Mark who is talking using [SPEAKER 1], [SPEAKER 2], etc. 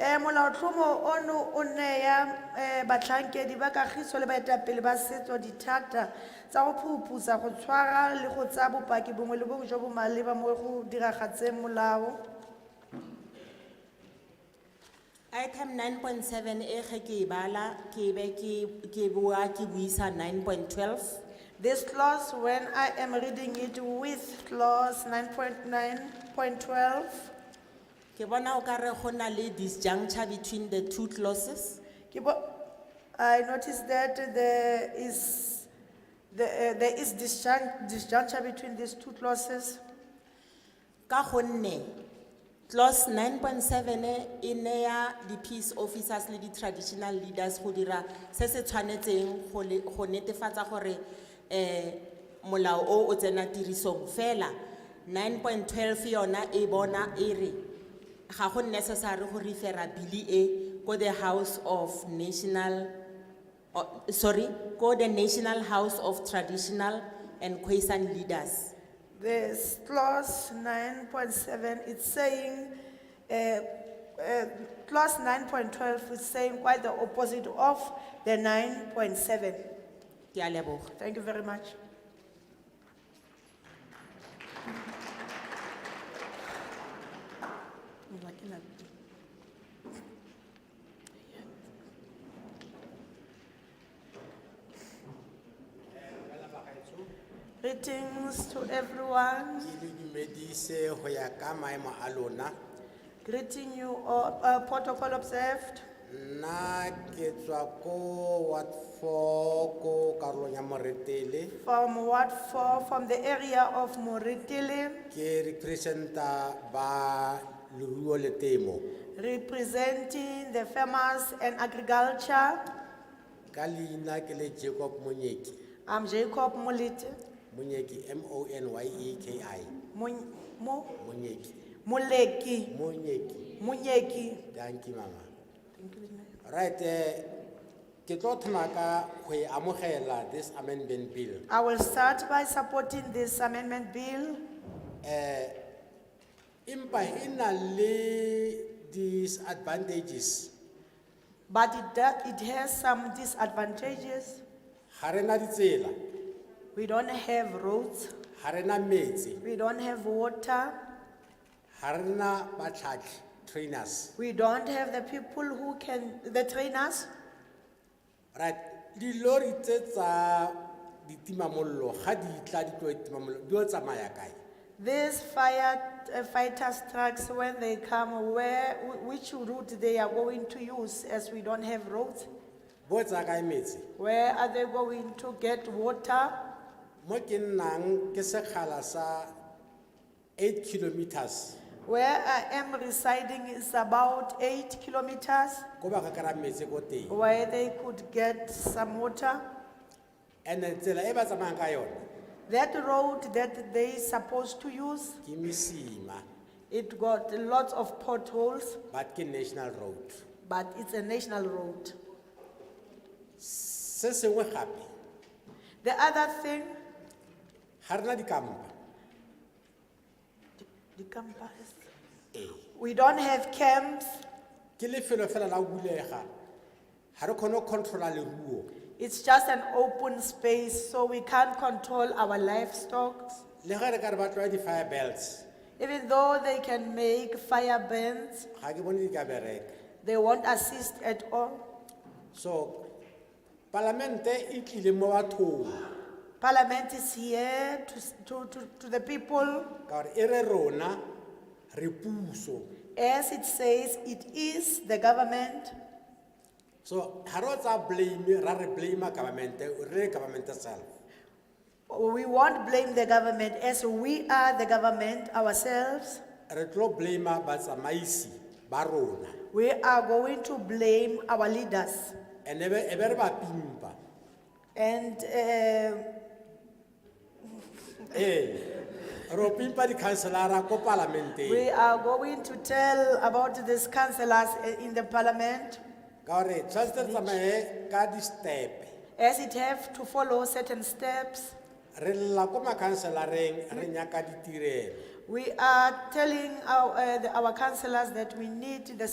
[SPEAKER 1] um molaotlhomo ono o nea um batlhankedi ba kagišo le baetapele ba setso dithata tsa go phuphusa go tshwara le go tsaya bopaki bongwe le bongwe jo bo maleba mo go diragatseng molao
[SPEAKER 2] item nine point seven e ge ke e bala ke be ke- ke boa ke buisa nine point twelve
[SPEAKER 1] This clause, when I am reading it with clause nine point nine point twelve,
[SPEAKER 2] ke bona o ka re go na le disjuncture between the two clauses
[SPEAKER 1] I noticed that there is, the, uh, there is disjunct, disjuncture between these two clauses.
[SPEAKER 2] ka gonne clause nine point seven e neya di-peace officers le di-traditional leaders go dira se se tshwanetseng go le- go netefatsa gore um molao o o tsena tirisong fela nine point twelve yona e bona e re ga go necessary go refera bili e ko the house of national o- sorry ko the national house of traditional and quasan leaders
[SPEAKER 1] This clause nine point seven, it's saying, uh, uh, clause nine point twelve is saying quite the opposite of the nine point seven.
[SPEAKER 2] ke a leboga
[SPEAKER 1] Thank you very much. Greetings to everyone.
[SPEAKER 3] ke le dumedise go ya ka maemo a lona
[SPEAKER 1] Greeting you all, uh, protocol observed.
[SPEAKER 3] nna ke tswa ko wat four ko karolong ya moretele
[SPEAKER 1] From Ward Four, from the area of Moretele,
[SPEAKER 3] ke representa ba leruo le temo
[SPEAKER 1] representing the farmers and agriculture.
[SPEAKER 3] ka leina ke le jacob monyeki
[SPEAKER 1] I'm Jacob Molete,
[SPEAKER 3] monyeki m o n y e k i
[SPEAKER 1] Mon- Mo,
[SPEAKER 3] monyeki
[SPEAKER 1] Moleki,
[SPEAKER 3] monyeki
[SPEAKER 1] Munyeki.
[SPEAKER 3] danki mama right eh, ke tlo thoma ka go e amogela this amendment bill
[SPEAKER 1] I will start by supporting this amendment bill,
[SPEAKER 3] empa e na le disadvantages
[SPEAKER 1] but it, do- it has some disadvantages.
[SPEAKER 3] ga re na ditsela
[SPEAKER 1] We don't have roads,
[SPEAKER 3] ga re na metsi
[SPEAKER 1] we don't have water,
[SPEAKER 3] ga re na batlhatlhi trainers
[SPEAKER 1] we don't have the people who can, the trainers.
[SPEAKER 3] right dilori tse tsa ditimamollo ga di tla di tlo ditimamollo di o tsamaya kae
[SPEAKER 1] These fire uh, fighters trucks, when they come, where, wh- which route they are going to use as we don't have roads?
[SPEAKER 3] bo tsaya kae metsi
[SPEAKER 1] Where are they going to get water?
[SPEAKER 3] mo ke nnang ke sekgala sa eight kilometers
[SPEAKER 1] Where I am residing is about eight kilometers
[SPEAKER 3] ko ba ka kry-a metsi ko teng
[SPEAKER 1] where they could get some water.
[SPEAKER 3] and-e tsela e ba tsamayang ka yone
[SPEAKER 1] That road that they supposed to use,
[SPEAKER 3] ke mesima
[SPEAKER 1] it got lots of potholes,
[SPEAKER 3] but ke national road
[SPEAKER 1] but it's a national road.
[SPEAKER 3] se sengwe gape
[SPEAKER 1] The other thing,
[SPEAKER 3] ga rena dikampa
[SPEAKER 1] the campus,
[SPEAKER 3] ee
[SPEAKER 1] we don't have camps.
[SPEAKER 3] ke lefelo fela la bulega ga re kgone go controla leruo
[SPEAKER 1] It's just an open space, so we can't control our livestock.
[SPEAKER 3] le ge re ka re ba tlwa di-fire belts
[SPEAKER 1] Even though they can make fire bans,
[SPEAKER 3] ga ke bone di ka bereka
[SPEAKER 1] they won't assist at all.
[SPEAKER 3] so palamente e tlile mo bathong
[SPEAKER 1] Parliament is here to, s- to, to, to the people.
[SPEAKER 3] ka gore e re rona re puso
[SPEAKER 1] As it says, it is the government.
[SPEAKER 3] so ga re o tsaya blame ra re blamea governmente re le governmente self
[SPEAKER 1] We won't blame the government as we are the government ourselves.
[SPEAKER 3] re tlo blamea batsamaisi ba rona
[SPEAKER 1] We are going to blame our leaders.
[SPEAKER 3] and e be- e be re ba pimpa
[SPEAKER 1] And uh,
[SPEAKER 3] ee ro pimpa dikhanselara ko
[SPEAKER 1] we
[SPEAKER 3] palamenteng
[SPEAKER 1] are going to tell about these councillors uh, in the parliament
[SPEAKER 3] ka gore tshwanetse re tsamaye ka di-stepe
[SPEAKER 1] as it have to follow certain steps.
[SPEAKER 3] re lla ko makhanselareng re nyaka ditirelo
[SPEAKER 1] We are telling our, uh, the- our councillors that we need the